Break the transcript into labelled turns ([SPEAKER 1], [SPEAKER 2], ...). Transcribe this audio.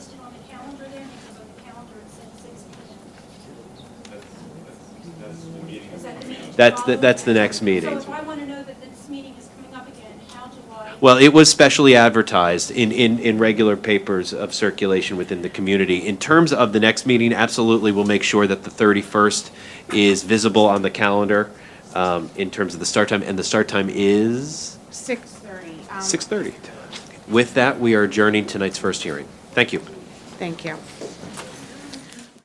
[SPEAKER 1] That's the- that's the next meeting.
[SPEAKER 2] So if I want to know that this meeting is coming up again, how do I?
[SPEAKER 1] Well, it was specially advertised in, in, in regular papers of circulation within the community. In terms of the next meeting, absolutely, we'll make sure that the 31st is visible on the calendar um, in terms of the start time, and the start time is
[SPEAKER 3] Six thirty. Um,
[SPEAKER 1] 6:30. With that, we are adjourning tonight's first hearing. Thank you.
[SPEAKER 3] Thank you.